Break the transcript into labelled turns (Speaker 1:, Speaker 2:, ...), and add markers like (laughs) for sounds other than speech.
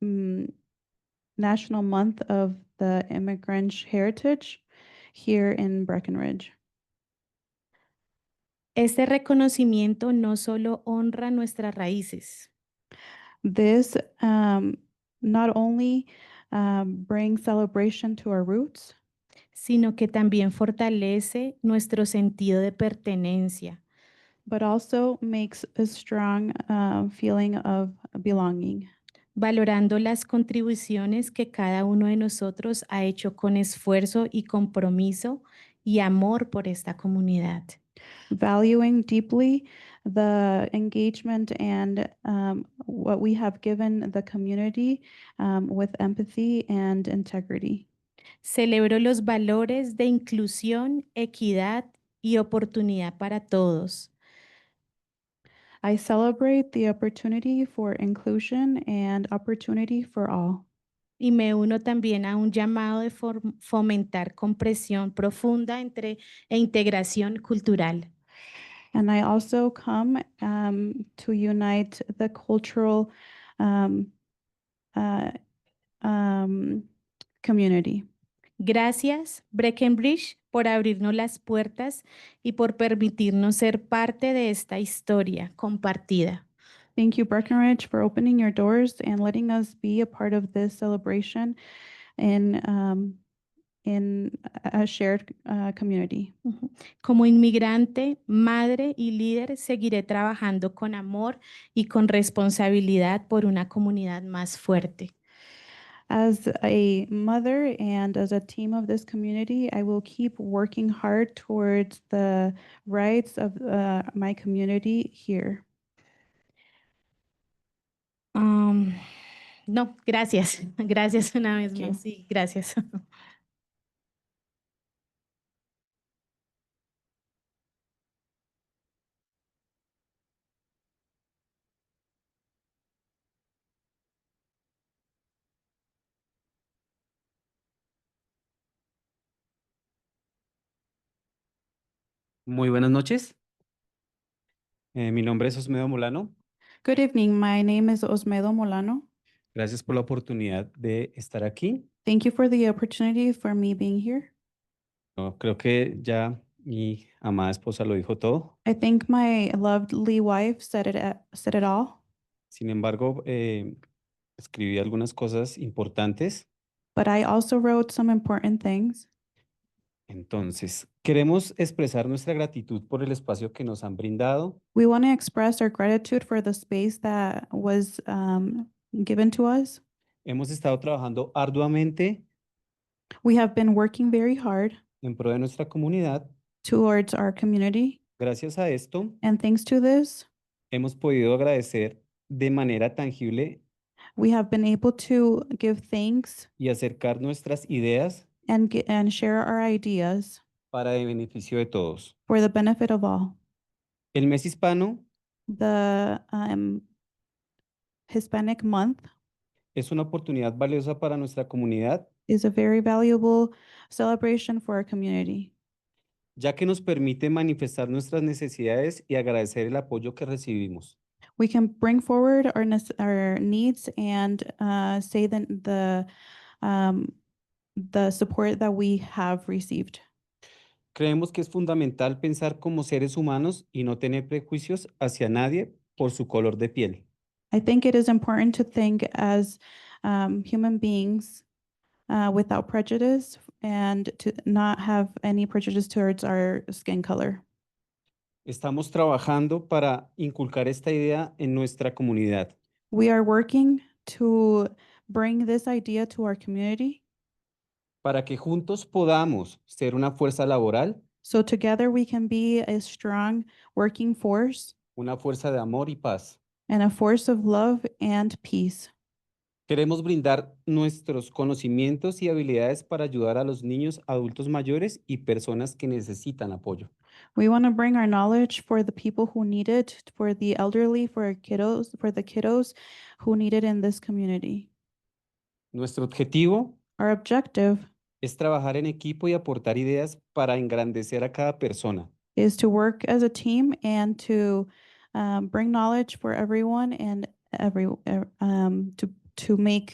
Speaker 1: mm, National Month of the Immigrant Heritage here in Breckenridge.
Speaker 2: Este reconocimiento no solo honra nuestras raíces,
Speaker 1: This um, not only um, brings celebration to our roots,
Speaker 2: sino que también fortalece nuestro sentido de pertenencia,
Speaker 1: but also makes a strong uh, feeling of belonging,
Speaker 2: valorando las contribuciones que cada uno de nosotros ha hecho con esfuerzo y compromiso y amor por esta comunidad.
Speaker 1: valuing deeply the engagement and um, what we have given the community um, with empathy and integrity.
Speaker 2: Celebro los valores de inclusión, equidad y oportunidad para todos,
Speaker 1: I celebrate the opportunity for inclusion and opportunity for all.
Speaker 2: Y me uno también a un llamado de form- fomentar compresión profunda entre, e integración cultural.
Speaker 1: And I also come um, to unite the cultural um, uh, um, community.
Speaker 2: Gracias, Breckenbridge, por abrirnos las puertas y por permitirnos ser parte de esta historia compartida.
Speaker 1: Thank you, Breckenridge, for opening your doors and letting us be a part of this celebration in um, in a a shared uh, community.
Speaker 2: Ujú. Como inmigrante, madre y líder, seguiré trabajando con amor y con responsabilidad por una comunidad más fuerte.
Speaker 1: As a mother and as a team of this community, I will keep working hard towards the rights of uh, my community here.
Speaker 2: Am, no, gracias. (laughs) Gracias una vez
Speaker 1: Thank you.
Speaker 2: más. Sí, gracias.
Speaker 3: Muy buenas noches. Eh, mi nombre es Osmedo Molano.
Speaker 1: Good evening. My name is Osmedo Molano.
Speaker 3: Gracias por la oportunidad de estar aquí.
Speaker 1: Thank you for the opportunity for me being here.
Speaker 3: No, creo que ya mi amada esposa lo dijo todo.
Speaker 1: I think my lovely wife said it a- said it all,
Speaker 3: Sin embargo, eh, escribí algunas cosas importantes.
Speaker 1: but I also wrote some important things.
Speaker 3: Entonces, queremos expresar nuestra gratitud por el espacio que nos han brindado.
Speaker 1: We want to express our gratitude for the space that was um, given to us.
Speaker 3: Hemos estado trabajando arduamente
Speaker 1: We have been working very hard
Speaker 3: en pro de nuestra comunidad.
Speaker 1: towards our community,
Speaker 3: Gracias a esto,
Speaker 1: and thanks to this,
Speaker 3: hemos podido agradecer de manera tangible
Speaker 1: we have been able to give thanks
Speaker 3: y acercar nuestras ideas
Speaker 1: and ge- and share our ideas
Speaker 3: para el beneficio de todos.
Speaker 1: for the benefit of all.
Speaker 3: El mes hispano
Speaker 1: The um, Hispanic Month
Speaker 3: es una oportunidad valiosa para nuestra comunidad,
Speaker 1: is a very valuable celebration for our community
Speaker 3: ya que nos permite manifestar nuestras necesidades y agradecer el apoyo que recibimos.
Speaker 1: we can bring forward our nes- our needs and uh, say the the um, the support that we have received.
Speaker 3: Creemos que es fundamental pensar como seres humanos y no tener prejuicios hacia nadie por su color de piel.
Speaker 1: I think it is important to think as um, human beings uh, without prejudice and to not have any prejudice towards our skin color.
Speaker 3: Estamos trabajando para inculcar esta idea en nuestra comunidad.
Speaker 1: We are working to bring this idea to our community
Speaker 3: para que juntos podamos ser una fuerza laboral,
Speaker 1: so together we can be a strong working force
Speaker 3: una fuerza de amor y paz.
Speaker 1: and a force of love and peace.
Speaker 3: Queremos brindar nuestros conocimientos y habilidades para ayudar a los niños, adultos mayores y personas que necesitan apoyo.
Speaker 1: We want to bring our knowledge for the people who need it, for the elderly, for our kiddos, for the kiddos who need it in this community.
Speaker 3: Nuestro objetivo
Speaker 1: Our objective
Speaker 3: es trabajar en equipo y aportar ideas para engrandecer a cada persona.
Speaker 1: is to work as a team and to um, bring knowledge for everyone and every ev- um, er, to to make